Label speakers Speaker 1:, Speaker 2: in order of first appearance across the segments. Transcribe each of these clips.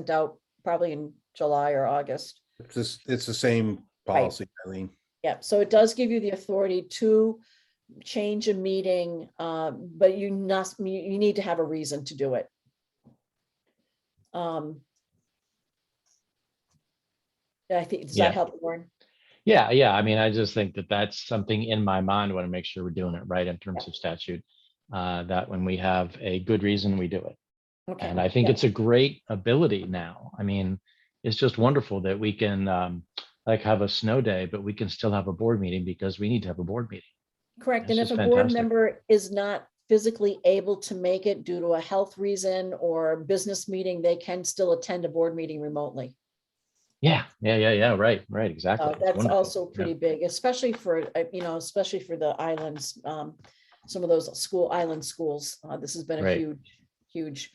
Speaker 1: sent out probably in July or August.
Speaker 2: It's this, it's the same
Speaker 1: Right.
Speaker 2: policy, Eileen.
Speaker 1: Yep, so it does give you the authority to change a meeting, uh, but you must, you you need to have a reason to do it. Um, I think, does
Speaker 3: Yeah.
Speaker 1: that help, Warren?
Speaker 3: Yeah, yeah. I mean, I just think that that's something in my mind. Want to make sure we're doing it right in terms of statute. Uh, that when we have a good reason, we do it.
Speaker 1: Okay.
Speaker 3: And I think
Speaker 1: yeah.
Speaker 3: it's a great ability now. I mean, it's just wonderful that we can um, like have a snow day, but we can still have a board meeting because we need to have a board meeting.
Speaker 1: Correct, and if
Speaker 3: This
Speaker 1: a
Speaker 3: is
Speaker 1: board
Speaker 3: fantastic.
Speaker 1: member is not physically able to make it due to a health reason or a business meeting, they can still attend a board meeting remotely.
Speaker 3: Yeah, yeah, yeah, yeah. Right, right, exactly.
Speaker 1: So
Speaker 3: It's
Speaker 1: Uh, that's
Speaker 3: wonderful.
Speaker 1: also
Speaker 3: Yeah.
Speaker 1: pretty big, especially for, uh, you know, especially for the islands, um, some of those school, island schools. Uh, this has been a
Speaker 3: Right.
Speaker 1: huge, huge,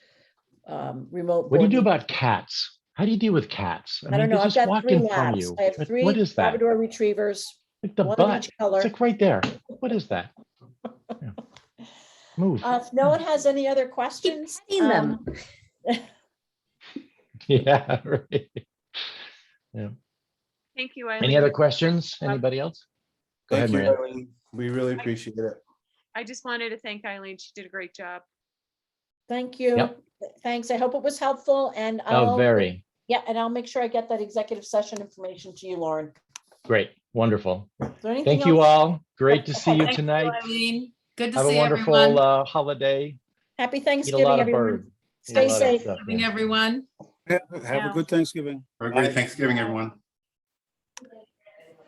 Speaker 1: um, remote.
Speaker 3: What do
Speaker 1: board
Speaker 3: you do
Speaker 1: meeting.
Speaker 3: about cats? How do you deal with cats?
Speaker 1: I don't
Speaker 3: mean, they
Speaker 1: know, I've
Speaker 3: just
Speaker 1: got
Speaker 3: walk
Speaker 1: three
Speaker 3: in front of
Speaker 1: labs.
Speaker 3: you.
Speaker 1: I have
Speaker 3: What-
Speaker 1: three
Speaker 3: What is that?
Speaker 1: Labrador retrievers,
Speaker 3: Like The
Speaker 1: one of
Speaker 3: butt.
Speaker 1: each color.
Speaker 3: It's like right there. What is that? Yeah. Move.
Speaker 1: Uh, if no one has any other questions?
Speaker 4: petting them.
Speaker 1: um,
Speaker 3: Yeah, right.
Speaker 5: Thank you. Eileen.
Speaker 3: Any other questions? Anybody else? Go ahead,
Speaker 2: Thank you,
Speaker 3: Miranda.
Speaker 2: Eileen. We really appreciate it.
Speaker 5: I just wanted to thank Eileen. She did a great job.
Speaker 1: Thank you.
Speaker 3: Yep.
Speaker 1: Thanks. I hope it was helpful and
Speaker 3: Oh,
Speaker 1: I'll.
Speaker 3: very.
Speaker 1: Yeah, and I'll make sure I get that executive session information to you, Lauren.
Speaker 3: Great, wonderful.
Speaker 1: Is there anything
Speaker 3: Thank you
Speaker 1: else?
Speaker 3: all. Great to see you
Speaker 4: Thank you,
Speaker 3: tonight.
Speaker 4: Eileen. Good to
Speaker 3: Have a
Speaker 4: see
Speaker 3: wonderful
Speaker 4: everyone.
Speaker 3: uh, holiday.
Speaker 1: Happy
Speaker 3: Eat a
Speaker 1: Thanksgiving,
Speaker 3: lot of
Speaker 1: everyone.
Speaker 3: bird. Eat a
Speaker 1: Stay
Speaker 3: lot of
Speaker 1: safe.
Speaker 3: stuff,
Speaker 4: Having
Speaker 3: yeah.
Speaker 4: everyone.
Speaker 6: Yeah, Have
Speaker 5: Yeah.
Speaker 6: a good Thanksgiving.
Speaker 7: Have a great Thanksgiving, everyone.